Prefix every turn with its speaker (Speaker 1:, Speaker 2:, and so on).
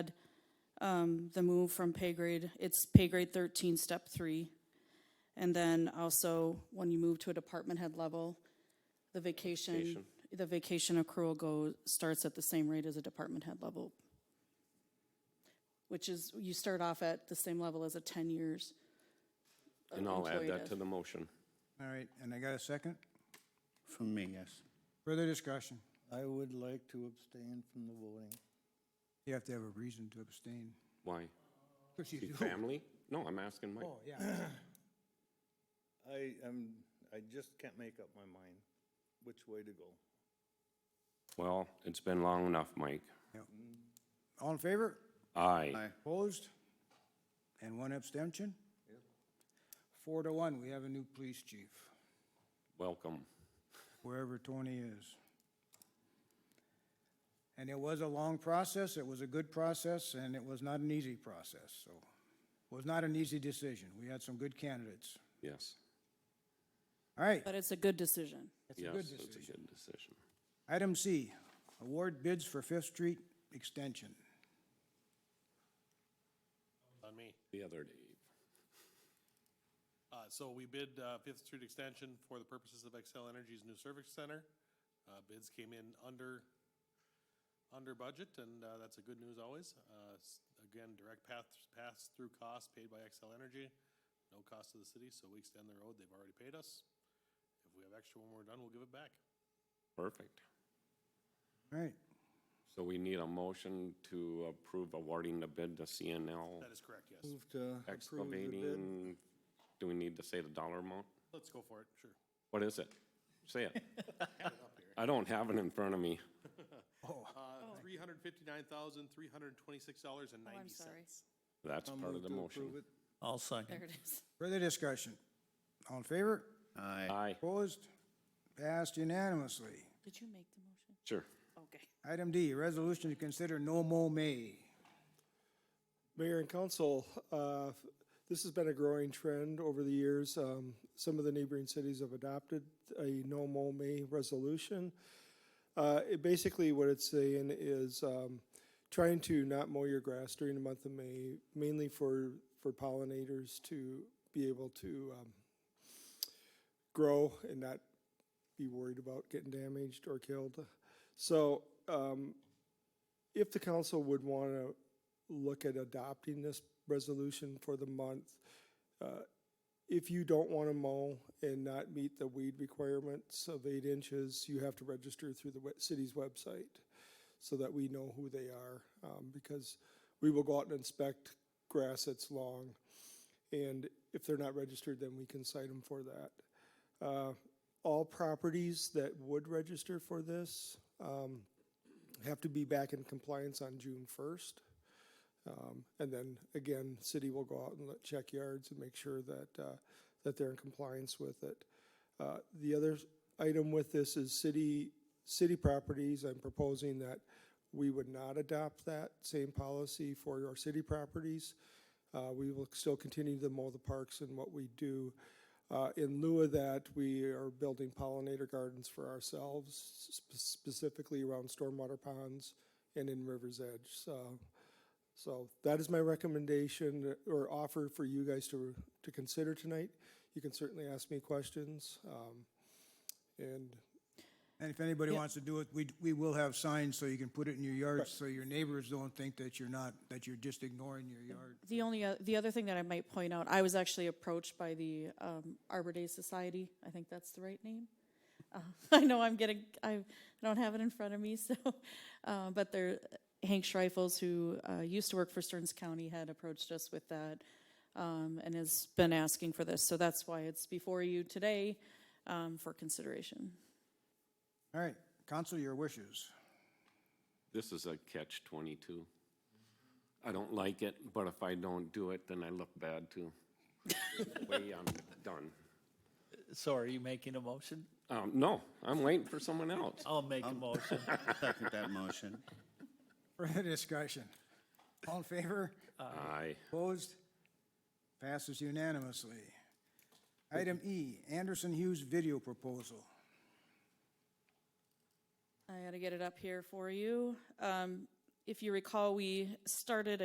Speaker 1: um, the move from pay grade, it's pay grade thirteen, step three. And then also, when you move to a department head level, the vacation, the vacation accrual go, starts at the same rate as a department head level. Which is, you start off at the same level as a ten years.
Speaker 2: Uh,
Speaker 1: uh,
Speaker 2: And I'll add
Speaker 1: employee
Speaker 2: that
Speaker 1: does.
Speaker 2: to the motion.
Speaker 3: All right, and I got a second?
Speaker 4: From me, yes.
Speaker 3: Further discussion?
Speaker 5: I would like to abstain from the voting.
Speaker 3: You have to have a reason to abstain.
Speaker 2: Why?
Speaker 3: Because you
Speaker 2: See
Speaker 3: do.
Speaker 2: Family? No, I'm asking Mike.
Speaker 3: Oh, yeah.
Speaker 5: I am, I just can't make up my mind which way to go.
Speaker 2: Well, it's been long enough, Mike.
Speaker 3: All in favor?
Speaker 2: Aye.
Speaker 4: Aye.
Speaker 3: Opposed? And one abstention? Four to one, we have a new police chief,
Speaker 2: Welcome.
Speaker 3: wherever Tony is. And it was a long process, it was a good process, and it was not an easy process, so. Was not an easy decision. We had some good candidates.
Speaker 2: Yes.
Speaker 3: All right,
Speaker 1: But it's a good decision.
Speaker 3: that's a
Speaker 2: Yes,
Speaker 3: good
Speaker 2: it's
Speaker 3: decision.
Speaker 2: a good decision.
Speaker 3: Item C, award bids for Fifth Street extension.
Speaker 6: On me.
Speaker 2: The other day.
Speaker 6: Uh, so we bid, uh, Fifth Street Extension for the purposes of Excel Energy's new service center. Uh, bids came in under, under budget, and, uh, that's a good news always. Uh, s- again, direct path, pass-through costs paid by Excel Energy, no cost to the city, so we extend the road, they've already paid us. If we have extra when we're done, we'll give it back.
Speaker 2: Perfect.
Speaker 3: All right,
Speaker 2: So we need a motion to approve awarding the bid to CNL
Speaker 6: That is correct, yes.
Speaker 5: Move to approve the bid.
Speaker 2: excavating. Do we need to say the dollar amount?
Speaker 6: Let's go for it, sure.
Speaker 2: What is it? Say it. I don't have it in front of me.
Speaker 6: Uh, three hundred fifty-nine thousand, three hundred twenty-six dollars and
Speaker 1: Oh, I'm
Speaker 6: ninety
Speaker 1: sorry.
Speaker 6: cents.
Speaker 2: That's
Speaker 5: I'll
Speaker 2: part of
Speaker 5: move
Speaker 2: the
Speaker 5: to
Speaker 2: motion.
Speaker 5: approve it.
Speaker 4: I'll
Speaker 1: There
Speaker 4: second.
Speaker 1: it is.
Speaker 3: further discussion. All in favor?
Speaker 4: Aye.
Speaker 2: Aye,
Speaker 3: Opposed? Passed unanimously.
Speaker 1: Did you make the motion?
Speaker 2: sure.
Speaker 1: Okay.
Speaker 3: Item D, resolution to consider no mow May.
Speaker 7: Mayor and council, uh, f- this has been a growing trend over the years. Um, Some of the neighboring cities have adopted a no mow May resolution. Uh, It basically, what it's saying is um, trying to not mow your grass during the month of May, mainly for, for pollinators to be able to um, grow and not be worried about getting damaged or killed. So um, if the council would want to look at adopting this resolution for the month. Uh, If you don't want to mow and not meet the weed requirements of eight inches, you have to register through the we- city's website so that we know who they are, um, because we will go out and inspect grass that's long. And if they're not registered, then we can cite them for that. Uh, All properties that would register for this um, have to be back in compliance on June first. And then again, city will go out and let- check yards and make sure that, uh, that they're in compliance with it. Uh, The other s- item with this is city, city properties. I'm proposing that we would not adopt that same policy for our city properties. Uh, We will still continue to mow the parks and what we do. Uh, In lieu of that, we are building pollinator gardens for ourselves, sp- specifically around stormwater ponds and in River's Edge. So so that is my recommendation or offer for you guys to, to consider tonight. You can certainly ask me questions. um, And
Speaker 3: And if anybody wants to do it, we, we will have signs so you can put it in your yard, so your neighbors don't think that you're not, that you're just ignoring your yard.
Speaker 1: The only, o- the other thing that I might point out, I was actually approached by the um, Arbor Day Society, I think that's the right name. Uh, I know I'm getting, I don't have it in front of me, so, uh, but there, Hank Schreifels, who uh, used to work for Stearns County, had approached us with that um, and has been asking for this, so that's why it's before you today um, for consideration.
Speaker 3: All right, council, your wishes.
Speaker 2: This is a catch twenty-two. I don't like it, but if I don't do it, then I look bad too. Way I'm done.
Speaker 8: So are you making a motion?
Speaker 2: Um, no, I'm waiting for someone else.
Speaker 8: I'll make a motion.
Speaker 4: Um, Second that motion.
Speaker 3: Further discussion. All in favor?
Speaker 2: Aye.
Speaker 3: Opposed? Passes unanimously. Item E, Anderson Hughes video proposal.
Speaker 1: I gotta get it up here for you. Um, If you recall, we started